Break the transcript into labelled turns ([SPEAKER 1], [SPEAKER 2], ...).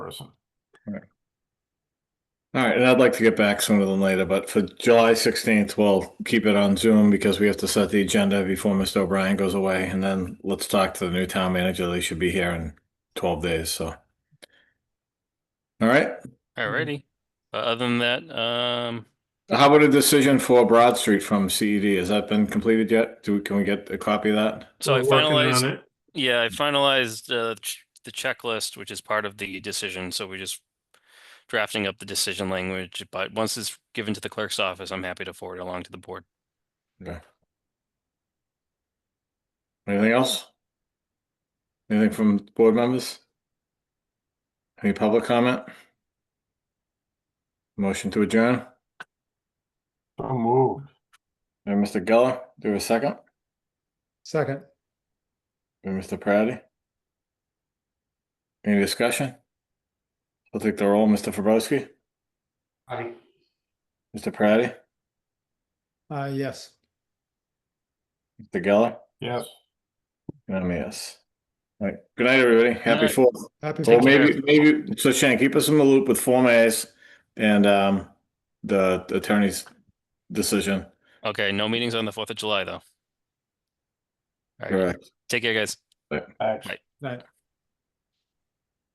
[SPEAKER 1] person.
[SPEAKER 2] All right, and I'd like to get back sooner than later, but for July sixteenth, we'll keep it on Zoom because we have to set the agenda before Mr. O'Brien goes away, and then let's talk to the new town manager. They should be here in twelve days, so. All right,
[SPEAKER 1] Mm-hmm.
[SPEAKER 3] Alrighty. Uh, Other than that, um,
[SPEAKER 2] how about a decision for Broad Street from CED? Has that been completed yet? Do, we can we get a copy of that?
[SPEAKER 3] so I
[SPEAKER 1] We're working on
[SPEAKER 3] finalized,
[SPEAKER 1] it.
[SPEAKER 3] yeah, I finalized, uh, ch- the checklist, which is part of the decision, so we're just drafting up the decision language, but once it's given to the clerk's office, I'm happy to forward it along to the board.
[SPEAKER 2] Anything else? Anything from board members? Any public comment? Motion to adjourn?
[SPEAKER 1] So moved.
[SPEAKER 2] And Mr. Geller, do we have a second?
[SPEAKER 4] Second,
[SPEAKER 2] And Mr. Praddy? Any discussion? I'll take the roll. Mr. Fabrowski,
[SPEAKER 1] Aye.
[SPEAKER 2] Mr. Praddy,
[SPEAKER 4] uh, yes.
[SPEAKER 2] Mr. Geller,
[SPEAKER 1] Yes.
[SPEAKER 2] and I'm a yes. All right. Good night, everybody. Happy
[SPEAKER 3] night.
[SPEAKER 2] Fourth.
[SPEAKER 4] Happy
[SPEAKER 2] Well,
[SPEAKER 3] Take care.
[SPEAKER 2] maybe, maybe, so Shane, keep us in the loop with Form As and um, the the attorney's decision.
[SPEAKER 3] Okay, no meetings on the fourth of July, though. Alright,
[SPEAKER 2] Correct.
[SPEAKER 3] take care, guys.
[SPEAKER 1] Aye.
[SPEAKER 4] night.